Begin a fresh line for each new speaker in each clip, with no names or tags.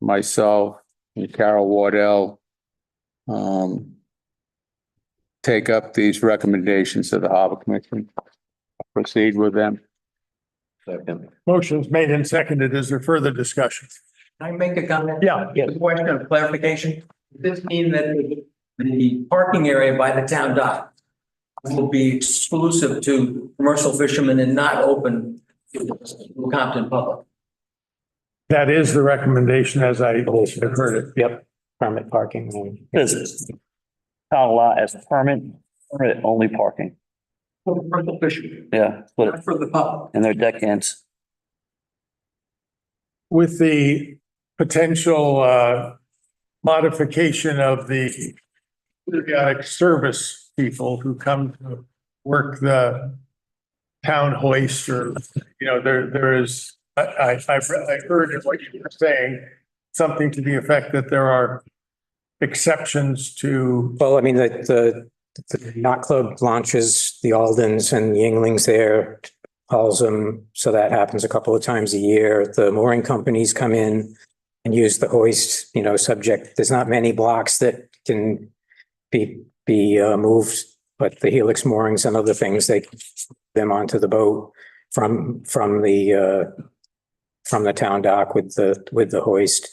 myself and Carol Wardell um, take up these recommendations of the Harbor Commission, proceed with them.
Second.
Motion's made and seconded. Is there further discussion?
Can I make a comment?
Yeah,
A question of clarification. Does this mean that the- the parking area by the town dock will be exclusive to commercial fishermen and not open to the Compton public?
That is the recommendation as I heard it.
Yep, permit parking. This is town lot as permit, permit only parking.
For the Commercial fishermen,
Yeah, but
not for the public.
and their deck ends.
With the potential uh modification of the periodic service people who come to work the town hoist or, you know, there, there is, I, I, I've re- I heard what you were saying, something to the effect that there are exceptions to
Well, I mean, the, the, the yacht club launches the Aldens and Yinglings there, hauls them. So that happens a couple of times a year. The mooring companies come in and use the hoist, you know, subject, there's not many blocks that can be, be uh, moved, but the helix moorings and other things, they can them onto the boat from, from the, uh, from the town dock with the, with the hoist.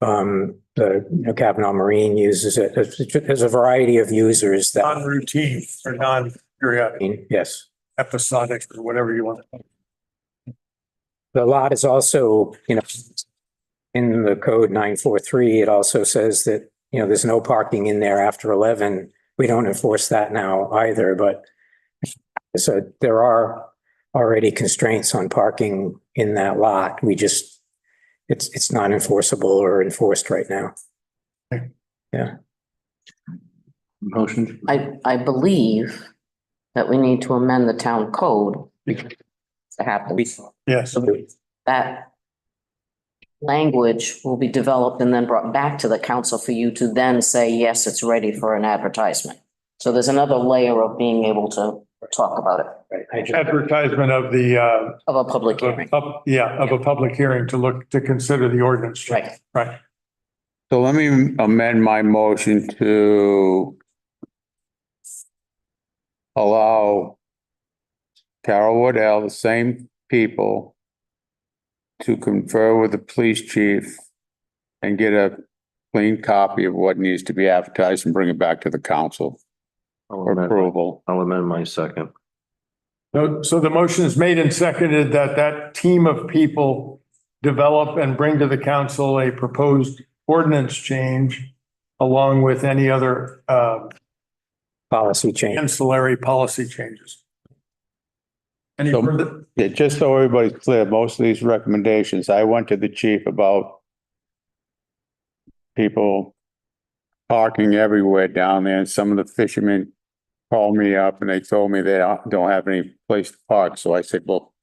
Um, the, you know, Kavanaugh Marine uses it. There's, there's a variety of users that,
non-routine or non-periodic
yes.
episodic or whatever you want. to
The lot is also, you know, in the code nine four three, it also says that, you know, there's no parking in there after eleven. We don't enforce that now either, but so there are already constraints on parking in that lot. We just, it's, it's not enforceable or enforced right now.
Motion.
I, I believe that we need to amend the town code to happen.
Yes.
That language will be developed and then brought back to the council for you to then say, yes, it's ready for an advertisement. So there's another layer of being able to talk about it,
Advertisement of the uh
of a public hearing.
Of- Up, yeah, of a public hearing to look, to consider the ordinance. change.
Right.
Right.
So let me amend my motion to allow Carol Waddell, the same people, to confer with the police chief and get a clean copy of what needs to be advertised and bring it back to the council
I'll
for
amend,
approval.
I'll amend my second.
So, so the motion is made and seconded that that team of people develop and bring to the council a proposed ordinance change along with any other uh
Policy change.
ancillary policy changes. Any
So-
further?
Yeah, just so everybody's clear, most of these recommendations, I went to the chief about people parking everywhere down there, and some of the fishermen called me up and they told me they don't don't have any place to park, so I said, well,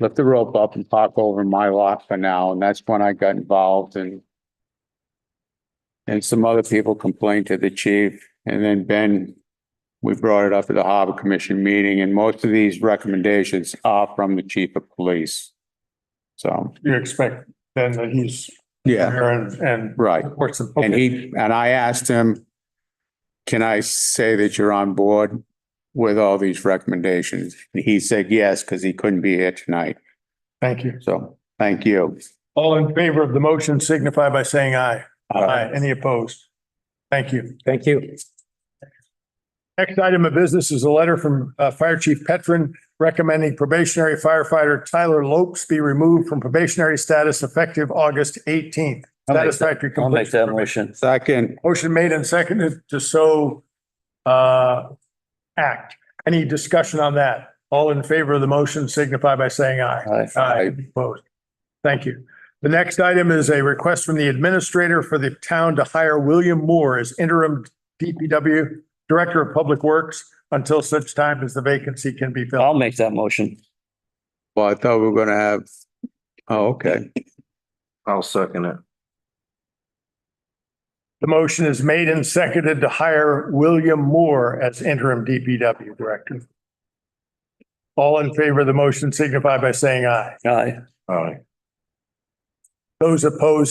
lift the rope up and park over my lot for now, and that's when I got involved and and some other people complained to the chief, and then Ben we brought it up at the Harbor Commission meeting, and most of these recommendations are from the chief of police. So,
You expect then that he's
yeah,
there and and
right.
reports them.
And
Okay.
he, and I asked him, can I say that you're on board with all these recommendations? And he said yes, because he couldn't be here tonight.
Thank you.
So, thank you.
All in favor of the motion signify by saying aye. Aye. Any opposed? Thank you.
Thank you.
Next item of business is a letter from uh, Fire Chief Petron recommending probationary firefighter Tyler Lopes be removed from probationary status effective August eighteenth.
I'll make that-
Satisfactory
I'll make
completion.
that motion.
Second,
Motion made and seconded to so uh, act. Any discussion on that? All in favor of the motion signify by saying aye.
Aye.
Aye, opposed. Thank you. The next item is a request from the administrator for the town to hire William Moore as interim DPW Director of Public Works until such time as the vacancy can be filled.
I'll make that motion.
well, I thought we were gonna have, oh, okay.
I'll second it.
The motion is made and seconded to hire William Moore as interim DPW Director. All in favor of the motion signify by saying aye.
Aye.
All right.
Those opposed